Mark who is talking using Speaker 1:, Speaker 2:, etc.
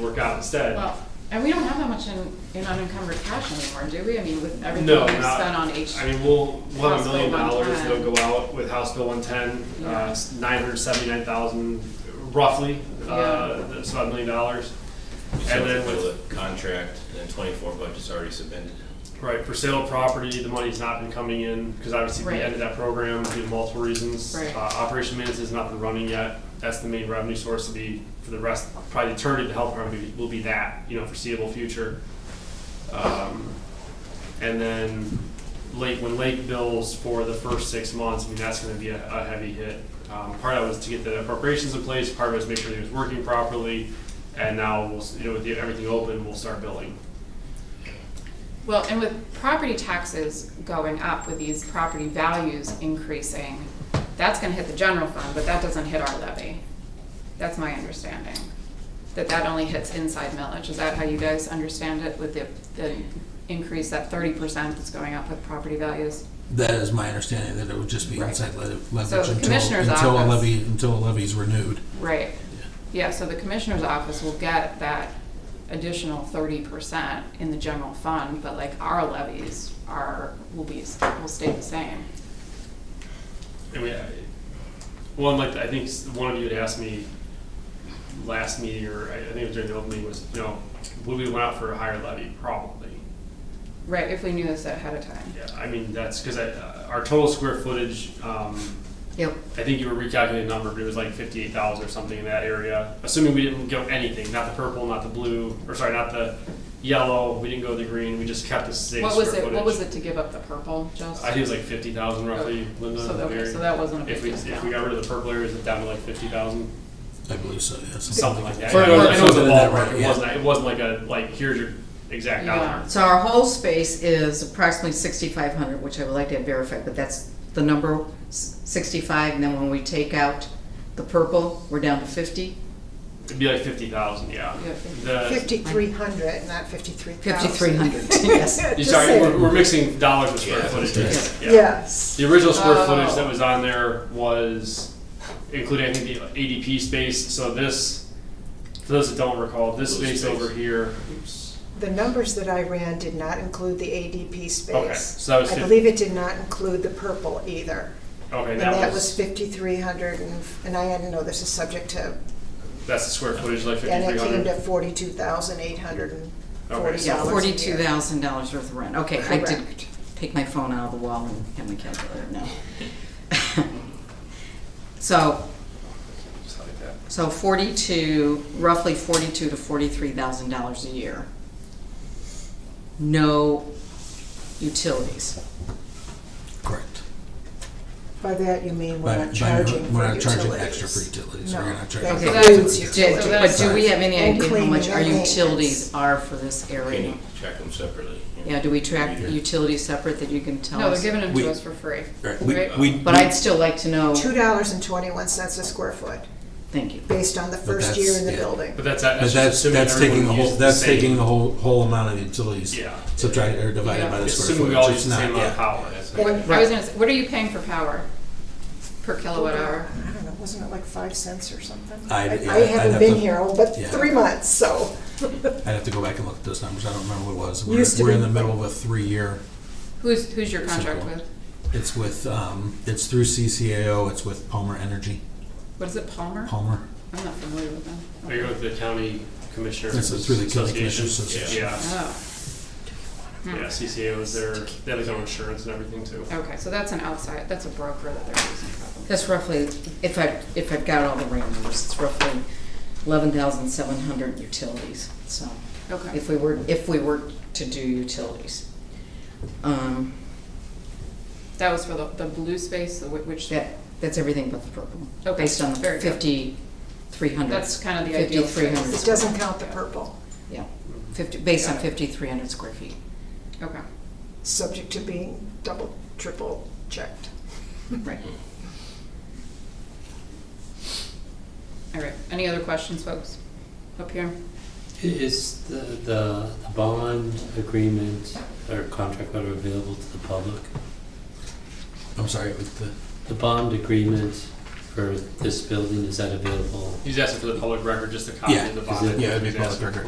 Speaker 1: work out instead.
Speaker 2: Well, and we don't have that much in, in unencumbered cash anymore, do we? I mean, with everything
Speaker 1: No,
Speaker 2: we've
Speaker 1: not-
Speaker 2: spent on H.
Speaker 1: I mean, we'll, we'll have
Speaker 2: House
Speaker 1: a
Speaker 2: Bill
Speaker 1: million dollars
Speaker 2: 110.
Speaker 1: that'll go out with House Bill one ten,
Speaker 2: Yeah.
Speaker 1: uh, nine hundred seventy-nine thousand roughly, uh,
Speaker 2: Yeah.
Speaker 1: that's about a million dollars.
Speaker 3: So
Speaker 1: And then
Speaker 3: fulfill
Speaker 1: with,
Speaker 3: the Contract and twenty-four budget's already submitted.
Speaker 1: right, for sale of property, the money's not been coming in, because obviously we
Speaker 2: Right.
Speaker 1: ended that program due to multiple reasons.
Speaker 2: Right.
Speaker 1: Uh, Operation Maintenance has not been running yet, that's the main revenue source to be, for the rest, probably the turn of the health department will be that, you know, foreseeable future. Um, And then Lake, when Lake bills for the first six months, I mean, that's gonna be a, a heavy hit. Um, part of that was to get the appropriations in place, part of it was make sure that it was working properly, and now we'll, s- you know, with the- everything open, we'll start billing.
Speaker 2: Well, and with property taxes going up, with these property values increasing, that's gonna hit the general fund, but that doesn't hit our levy. That's my understanding, that that only hits inside millage. Is that how you guys understand it with the, the increase, that thirty percent that's going up with property values?
Speaker 4: That is my understanding, that it would just be
Speaker 2: Right.
Speaker 4: inside le-
Speaker 2: So
Speaker 4: leverage
Speaker 2: the
Speaker 4: until,
Speaker 2: commissioner's
Speaker 4: until a
Speaker 2: office-
Speaker 4: levy, until a levy's renewed.
Speaker 2: Right. Yeah, so the commissioner's office will get that additional thirty percent in the general fund, but like our levies are, will be, will stay the same.
Speaker 1: I mean, I- one, like, I think s- one of you had asked me last meeting, or I I think it was during the open meeting, was, you know, would we went out for a higher levy? Probably.
Speaker 2: Right, if we knew this ahead of time.
Speaker 1: Yeah, I mean, that's, cause I, uh, our total square footage, um,
Speaker 2: Yep.
Speaker 1: I think you were recalculating the number, but it was like fifty-eight thousand or something in that area. Assuming we didn't go anything, not the purple, not the blue, or sorry, not the yellow. We didn't go the green. We just kept the same
Speaker 2: What
Speaker 1: square
Speaker 2: was it,
Speaker 1: footage.
Speaker 2: what was it to give up the purple, just?
Speaker 1: I think it was like fifty thousand roughly. Linda,
Speaker 2: So, okay,
Speaker 1: Mary.
Speaker 2: so that wasn't a big
Speaker 1: if we if we
Speaker 2: discount.
Speaker 1: got rid of the purple areas, it down to like fifty thousand,
Speaker 4: I believe so, yes.
Speaker 1: something like that.
Speaker 4: For-
Speaker 1: I know it was- I know it was a
Speaker 4: something in that
Speaker 1: ballpark.
Speaker 4: range,
Speaker 1: It
Speaker 4: yeah.
Speaker 1: wasn't. It wasn't like a like here's your exact
Speaker 2: Yeah.
Speaker 1: dollar.
Speaker 5: So our whole space is approximately sixty-five hundred, which I would like to have verified, but that's the number, s- sixty-five, and then when we take out the purple, we're down to fifty?
Speaker 1: It'd be like fifty thousand. Yeah.
Speaker 2: Yeah, 50.
Speaker 1: The-
Speaker 6: 5,300, not 53,000.
Speaker 5: Fifty-three hundred, yes.
Speaker 1: you-
Speaker 6: Just
Speaker 1: sorry,
Speaker 6: saying.
Speaker 1: we're, we're mixing dollars with square
Speaker 3: Yeah.
Speaker 1: footage. Yeah.
Speaker 6: Yes.
Speaker 1: The original square
Speaker 2: Oh.
Speaker 1: footage that was on there was including, I think, the ADP space, so this, for those that don't recall, this
Speaker 3: Blue
Speaker 1: space
Speaker 3: space.
Speaker 1: over here, oops,
Speaker 6: The numbers that I ran did not include the ADP space.
Speaker 1: Okay, so that was
Speaker 6: I
Speaker 1: fif-
Speaker 6: believe it did not include the purple either.
Speaker 1: okay,
Speaker 6: And
Speaker 1: that
Speaker 6: that
Speaker 1: was,
Speaker 6: was 5,300, and and I didn't know this is subject to,
Speaker 1: that's the square footage, like
Speaker 6: and
Speaker 1: fifty-three
Speaker 6: it came to
Speaker 1: hundred.
Speaker 6: 42,840
Speaker 1: Okay, so-
Speaker 5: Yeah,
Speaker 6: dollars a
Speaker 5: forty-two
Speaker 6: year.
Speaker 5: thousand dollars worth of rent, okay, I did
Speaker 6: Correct.
Speaker 5: take my phone out of the wall and have my calculator now. So, so forty-two, roughly forty-two to forty-three thousand dollars a year. No utilities.
Speaker 4: Correct.
Speaker 6: By that, you mean
Speaker 4: By-
Speaker 6: we're
Speaker 4: by-
Speaker 6: not charging for utilities.
Speaker 4: We're not charging extra for utilities,
Speaker 6: No,
Speaker 4: we're not
Speaker 6: that
Speaker 4: charging.
Speaker 5: Okay.
Speaker 4: for utilities.
Speaker 6: includes
Speaker 5: Do-
Speaker 2: So
Speaker 5: do-
Speaker 2: that's-
Speaker 5: But do we have any idea
Speaker 6: And
Speaker 5: how much
Speaker 6: cleaning
Speaker 5: our
Speaker 6: and maintenance.
Speaker 5: utilities are for this
Speaker 3: Can
Speaker 5: area?
Speaker 3: you track them separately?
Speaker 5: Yeah, do we track
Speaker 3: Yeah.
Speaker 5: utilities separate that you can tell
Speaker 2: No,
Speaker 5: us?
Speaker 2: they're giving them
Speaker 4: We-
Speaker 2: to us for free.
Speaker 4: Right, we-
Speaker 2: Right.
Speaker 4: we-
Speaker 5: But I'd still like to know,
Speaker 6: $2.21 a square foot,
Speaker 5: thank you.
Speaker 6: based on the first year
Speaker 4: that's-
Speaker 6: in the
Speaker 4: yeah.
Speaker 6: building.
Speaker 1: But that's, that's
Speaker 4: But
Speaker 1: just
Speaker 4: that's,
Speaker 1: assuming
Speaker 4: that's taking the
Speaker 1: everyone
Speaker 4: whole,
Speaker 1: uses the
Speaker 4: that's taking
Speaker 1: same,
Speaker 4: the whole, whole amount of utilities.
Speaker 1: Yeah.
Speaker 4: Subtracted or divided by the
Speaker 1: It's
Speaker 4: square
Speaker 1: assuming we all
Speaker 4: footage,
Speaker 1: use
Speaker 4: it's
Speaker 1: the same
Speaker 4: not,
Speaker 1: amount of
Speaker 4: yeah.
Speaker 1: power.
Speaker 3: That's
Speaker 2: What-
Speaker 3: not-
Speaker 2: I was gonna say, what are you paying for power? Per kilowatt hour?
Speaker 6: I don't know, wasn't it like five cents or something?
Speaker 4: I'd- yeah,
Speaker 6: I
Speaker 4: I'd
Speaker 6: haven't
Speaker 4: have
Speaker 6: been
Speaker 4: to-
Speaker 6: here, oh, but
Speaker 4: yeah.
Speaker 6: three months, so.
Speaker 4: I'd have to go back and look at those numbers, I don't remember what it was.
Speaker 6: Used to
Speaker 4: We're, we're in
Speaker 6: be-
Speaker 4: the middle of a three-year,
Speaker 2: Who's, who's your contract
Speaker 4: Simple.
Speaker 2: with?
Speaker 4: it's with, um, it's through CCAO, it's with Palmer Energy,
Speaker 2: What is it, Palmer?
Speaker 4: Palmer.
Speaker 2: I'm not familiar with them.
Speaker 1: There you go with the county commissioners
Speaker 4: This is through the county
Speaker 1: association.
Speaker 4: commissioners association.
Speaker 1: Yeah,
Speaker 2: Oh, Hmm.
Speaker 1: yeah, CCA was their, they have their own insurance and everything too.
Speaker 2: okay, so that's an outside, that's a broker that they're using probably.
Speaker 5: That's roughly, if I, if I've got all the right numbers, it's roughly eleven thousand seven hundred utilities, so.
Speaker 2: Okay.
Speaker 5: If we were, if we were to do utilities. Um,
Speaker 2: That was for the, the blue space, the whi- which,
Speaker 5: that, that's everything but the purple.
Speaker 2: Okay,
Speaker 5: Based on
Speaker 2: very
Speaker 5: the
Speaker 2: good.
Speaker 5: fifty-three hundred.
Speaker 2: That's kind of the ideal
Speaker 5: Fifty-three
Speaker 2: space.
Speaker 5: hundred,
Speaker 6: It doesn't count the purple,
Speaker 5: yeah, fifty, based on
Speaker 2: Got it.
Speaker 5: fifty-three hundred square feet.
Speaker 2: okay,
Speaker 6: subject to being double, triple checked.
Speaker 5: Right.
Speaker 2: all right. Any other questions, folks? Up here?
Speaker 7: I- Is the, the, the bond agreement or contract letter available to the public?
Speaker 4: I'm sorry, with the,
Speaker 7: The bond agreement
Speaker 8: for this building, is that available
Speaker 7: He's asking for the public record, just a copy
Speaker 1: Yeah,
Speaker 7: of the
Speaker 8: is
Speaker 7: bond.
Speaker 8: it-
Speaker 1: Yeah, it'd be
Speaker 7: He's
Speaker 1: public
Speaker 7: asking
Speaker 1: record.
Speaker 7: for.